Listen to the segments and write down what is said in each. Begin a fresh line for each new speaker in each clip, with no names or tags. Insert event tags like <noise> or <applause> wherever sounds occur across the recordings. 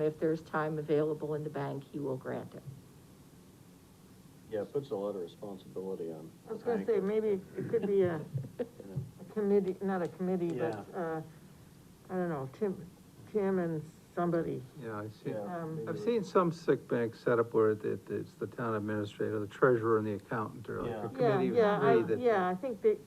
If there's time available in the bank, he will grant it.
Yeah, it puts a lot of responsibility on.
I was gonna say, maybe it could be a a committee, not a committee, but,
Yeah.
uh, I don't know, Tim, Tim and somebody.
Yeah, I've seen,
Yeah,
Um,
maybe
I've
we-
seen some sick bank set up where it, it- it's the town administrator, the treasurer and the accountant or like
Yeah.
a
Yeah,
committee
yeah,
of three
I,
that.
yeah, I think that,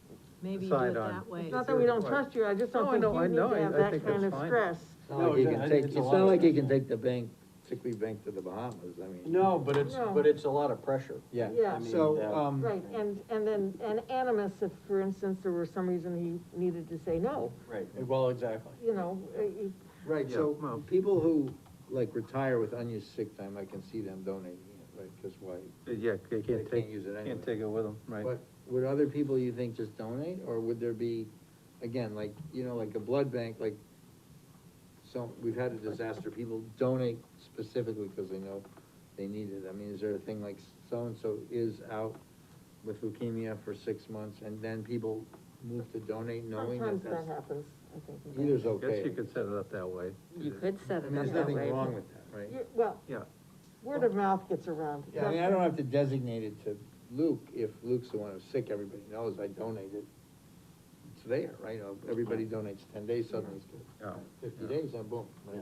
Maybe you do
Decide
it
on.
that way.
it's not that we don't
Right.
trust you, I just don't
No, I
think
know,
you
I
need
know,
to
I-
have
I
that
think that's
kind of
fine.
stress.
It's not like he can take, it's not like he can take the bank, Sickly Bank to the Bahamas, I mean.
No, but it's,
No.
but it's a lot of pressure.
Yeah.
Yeah.
I mean,
So,
yeah.
um,
Right, and, and then, and animus, if, for instance, there were some reason he needed to say no,
Right, well, exactly.
you know, uh, he-
Right,
Yeah, well.
so people who, like, retire with unused sick time, I can see them donating it, right, cause why?
yeah, they
They
can't
can't
take,
use it anyway.
can't take it with them, right?
But would other people, you think, just donate, or would there be, again, like, you know, like a blood bank, like, so, we've had a disaster, people donate specifically because they know they need it, I mean, is there a thing like so-and-so is out with leukemia for six months, and then people move to donate knowing
sometimes
that
that
that's,
happens, I think. in
either's
I guess you
okay.
could set it up that way.
You could set
I
it
mean,
up
there's
that
nothing
way.
wrong with that,
that.
right?
You- Well,
Yeah.
word of mouth gets around.
Yeah, I mean, I don't have to designate it to Luke, if Luke's the one who's sick, everybody knows I donated. It's there, right, Uh, everybody donates ten days, suddenly it's
Yeah.
fifty days, and boom. right?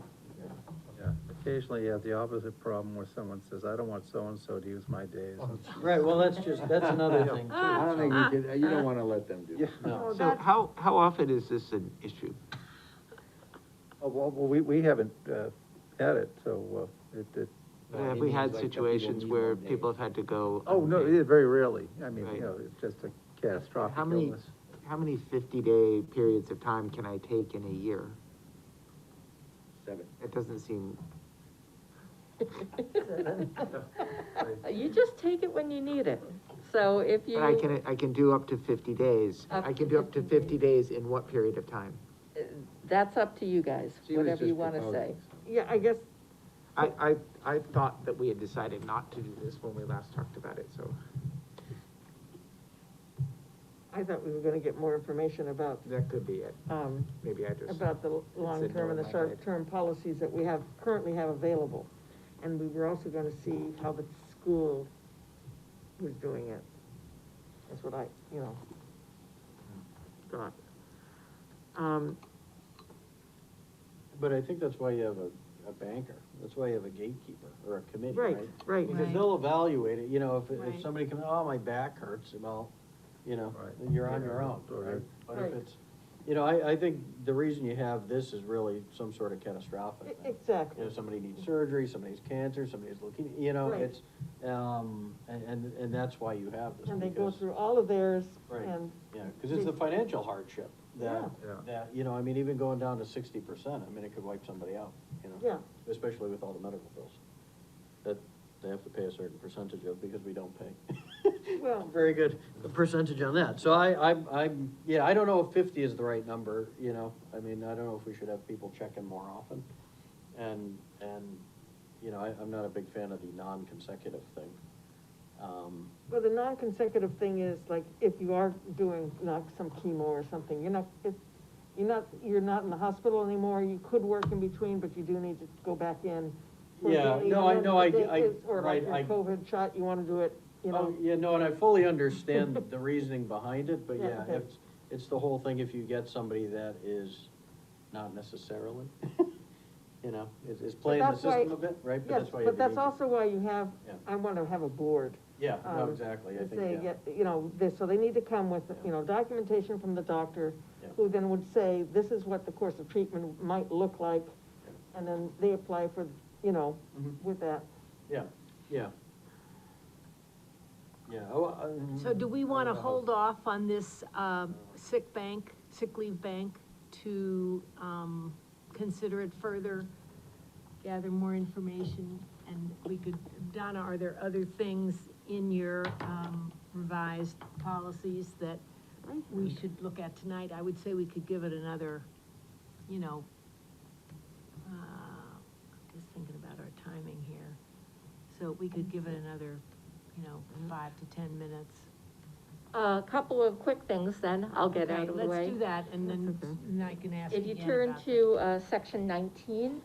Yeah, occasionally you have the opposite problem where someone says, I don't want so-and-so to use my days.
Right, well, that's just, that's another thing,
Ah,
Ah,
I
too.
don't think we could, uh, you don't wanna let them do that.
No,
So
that's-
how, how often is this an issue?
Oh, well, well, we, we haven't, uh, had it, so, uh, it, it,
No, he
Have we
means
had
like that people
situations
need
where
more days.
people have had to go?
oh, no,
unpaid?
it, very rarely, I mean, you
Right.
know, it's just a catastrophic
How many,
illness.
how many fifty-day periods of time can I take in a year?
Seven.
It doesn't seem,
You just take it when you need it. So if you,
but I can, I can do up to fifty days.
Up
I
to
can do up to
50
fifty days in what period of time?
that's up to you guys,
She was
whatever
just
you wanna say.
proposing something.
Yeah, I guess,
I, I, I thought that we had decided not to do this when we last talked about it, so.
I thought we were gonna get more information about,
That could be it,
um,
maybe I just.
about the
in
long-term and the
my head.
short-term policies that we have, currently have available. And we were also gonna see how the school was doing it. That's what I, you know, thought. Um,
But I think that's why you have a, a banker, that's why you have a gatekeeper, or a committee,
right,
right?
right,
Because
Right.
they'll evaluate it, you know, if, if
Right.
somebody comes, oh, my back hurts, well, you know,
Right.
then you're on your
Yeah,
own,
or-
right? But if
Right.
it's, you know, I, I think the reason you have this is really some sort of
E-
catastrophic thing. You know,
exactly,
somebody needs surgery, somebody has cancer, somebody has leukemia, you know,
Right.
it's, um, and, and, and that's why you have this.
and they go
because-
through all of theirs,
Right.
and,
Yeah, cause it's the financial hardship that,
Yeah. Yeah.
that, you know, I mean, even going down to sixty percent, I mean, it could wipe somebody out, you know?
Yeah.
Especially with all the medical bills that they have to pay a certain percentage of because we don't pay.
<laughs>
<laughs>
well,
Very good percentage on that. So I, I'm, I'm, yeah, I don't know if fifty is the right number, you know? I mean, I don't know if we should have people checking more often. And, and, you know, I, I'm not a big fan of the non-consecutive thing. Um,
Well, the non-consecutive thing is, like, if you are doing, not some chemo or something, you're not, if, you're not, you're not in the hospital anymore, you could work in between, but you do need to go back in. for
Yeah,
daily,
no, I-
and
no, I-
then the
I-
day is- Or like
right,
your
I-
COVID shot, you wanna do it, you
Oh,
know,
yeah, no, and I fully understand the reasoning behind it, but
Yeah,
yeah,
okay.
it's, it's the whole thing, if you get somebody that is not
<laughs>
necessarily, you know, is, is playing the
that's why-
system a bit, right? But
yes,
that's why you
but
have
that's
to be-
also why you have,
Yeah.
I wanna have a board.
Yeah, no,
um,
exactly, I
to
think,
say,
yeah.
get- You know, this, so they need to come with, you know, documentation from the doctor,
Yeah.
who then would say, this is what the course of treatment might look like, and then they apply for, you know,
Mhm.
with that.
Yeah, yeah. Yeah, oh, I.
So do we
I
wanna
don't know.
hold off on this, um, sick bank, sick leave bank to, um, consider it further? Gather more information and we could, Donna, are there other things in your, um, revised policies that we should look at tonight? I would say we could give it another, you know, uh, just thinking about our timing here. So we could give it another, you know, five to ten minutes.
A couple of quick things then, I'll get
Okay,
out of the way.
Let's do that, and then,
That's okay.
and I can ask
If you
again
turn
about that.
to, uh, section nineteen,